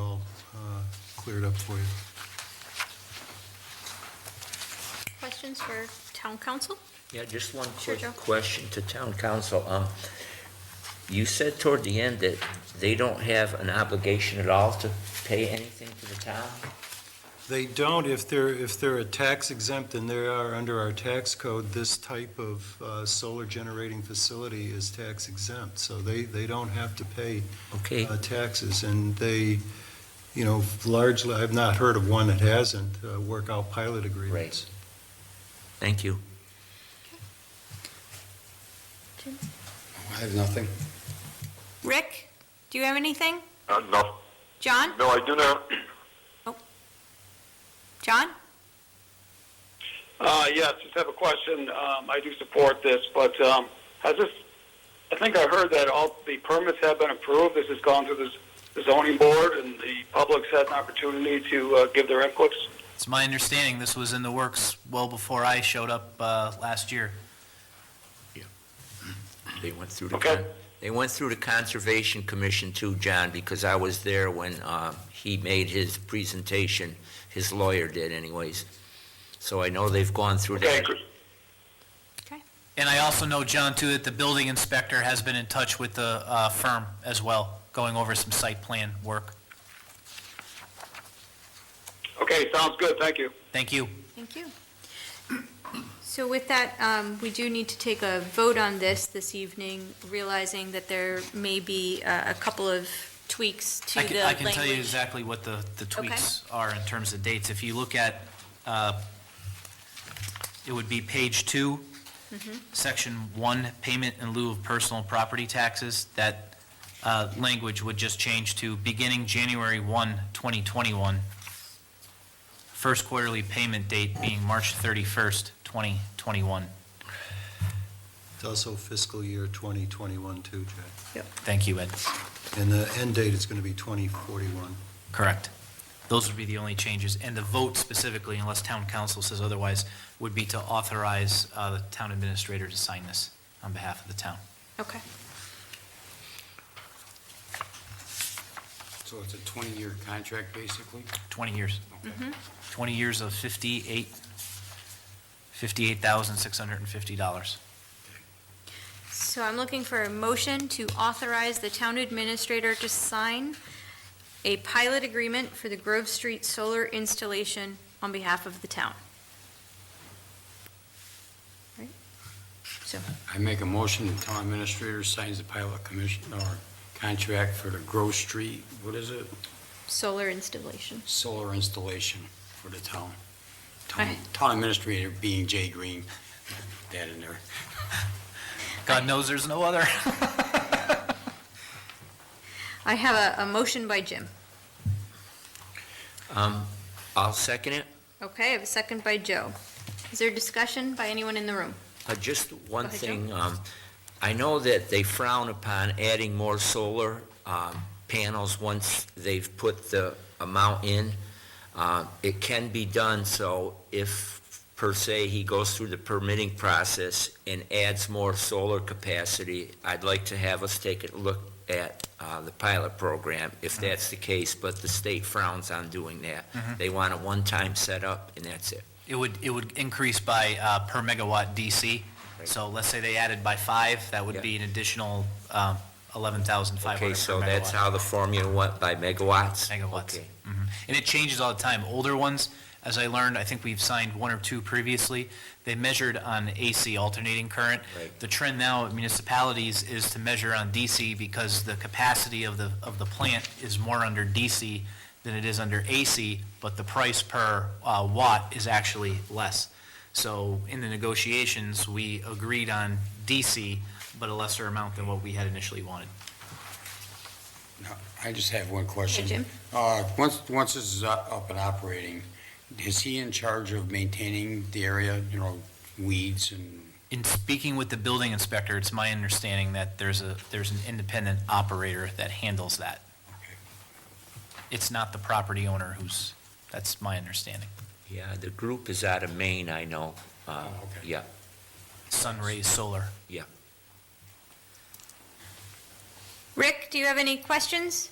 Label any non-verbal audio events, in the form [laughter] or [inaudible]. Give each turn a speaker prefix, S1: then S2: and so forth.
S1: uh, cleared up for you.
S2: Questions for town council?
S3: Yeah, just one
S2: Sure,
S3: quick
S2: Joe.
S3: question to town council. Um, You said toward the end that they don't have an obligation at all to pay anything to the town?
S1: They don't, if they're, if they're a tax exempt and they are under our tax code, this type of uh, solar generating facility is tax exempt. So they, they don't have to pay
S3: Okay,
S1: uh, taxes. And they, you know, largely, I've not heard of one that hasn't uh, work out pilot agreements.
S3: thank you.
S4: I have nothing.
S2: Rick, do you have anything?
S5: Uh, no,
S2: John?
S5: no, I do not.
S2: John?
S6: Uh, yes, just have a question. Um, I do support this, but um, has this? I think I heard that all the permits have been approved. This has gone through this, the zoning board, and the public's had an opportunity to uh, give their inputs.
S7: It's my understanding this was in the works well before I showed up uh, last year.
S3: They went through the,
S6: Okay.
S3: con- they went through the Conservation Commission too, John, because I was there when uh, he made his presentation, his lawyer did anyways. So I know they've gone through
S6: Okay,
S3: that.
S6: good.
S7: And I also know, John, too, that the building inspector has been in touch with the uh, firm as well, going over some site plan work.
S6: okay, sounds good. Thank you.
S7: Thank you.
S2: Thank you. So with that, um, we do need to take a vote on this this evening, realizing that there may be uh, a couple of tweaks to
S7: I
S2: the
S7: can, I
S2: language.
S7: can tell you exactly what the, the tweaks are in terms of dates. If you look at, uh, it would be page two,
S2: Mm-hmm.
S7: section one, payment in lieu of personal property taxes, that, uh, language would just change to beginning January one, twenty twenty-one. First quarterly payment date being March thirty-first, twenty twenty-one.
S1: It's also fiscal year 2021 too, Jack.
S7: Thank you, Ed.
S1: And the end date is going to be 2041.
S7: Correct. Those would be the only changes, and the vote specifically, unless town council says otherwise, would be to authorize uh, the town administrator to sign this on behalf of the town.
S2: Okay,
S4: So it's a 20-year contract, basically?
S7: 20 years.
S4: Okay.
S7: 20 years of 58, $58,650.
S2: so I'm looking for a motion to authorize the town administrator to sign a pilot agreement for the Grove Street solar installation on behalf of the town. Right? So,
S4: I make a motion, the town administrator signs the pilot commission, or contract for the Grove Street, what is it?
S2: solar installation.
S4: Solar installation for the town. Town
S2: Right.
S4: town administrator being Jay Green, Put that in there.
S7: God knows there's no other. [laughs]
S2: I have a, a motion by Jim.
S3: Um, I'll second it.
S2: Okay, I have a second by Joe. Is there discussion by anyone in the room?
S3: Uh, Just one
S2: ahead,
S3: thing, um, I know that they frown upon adding more solar um, panels once they've put the amount in. Uh, It can be done, so if, per se, he goes through the permitting process and adds more solar capacity, I'd like to have us take a look at uh, the pilot program, if that's the case, but the state frowns on doing that. They want a one-time setup, and that's it.
S7: It would, it would increase by uh, per megawatt DC. So let's say they added by five, that would
S3: Yeah.
S7: be an additional um, 11,500 per
S3: Okay, so that's
S7: megawatt.
S3: how the formula went, by megawatts?
S7: megawatts.
S3: Okay.
S7: Mhm. And it changes all the time. Older ones, as I learned, I think we've signed one or two previously, they measured on AC alternating current.
S3: Right.
S7: The trend now at municipalities is to measure on DC because the capacity of the, of the plant is more under DC than it is under AC, but the price per uh, watt is actually less. So in the negotiations, we agreed on DC, but a lesser amount than what we had initially wanted.
S4: No, I just have one question.
S2: Hey, Jim?
S4: Uh, once, once this is u- up and operating, is he in charge of maintaining the area, you know, weeds and,
S7: In speaking with the building inspector, it's my understanding that there's a, there's an independent operator that handles that.
S4: okay.
S7: It's not the property owner who's, that's my understanding.
S3: Yeah, the group is out of Maine, I know. Uh,
S4: Oh, okay.
S3: Yeah,
S7: Sunray Solar.
S3: yeah.
S2: Rick, do you have any questions?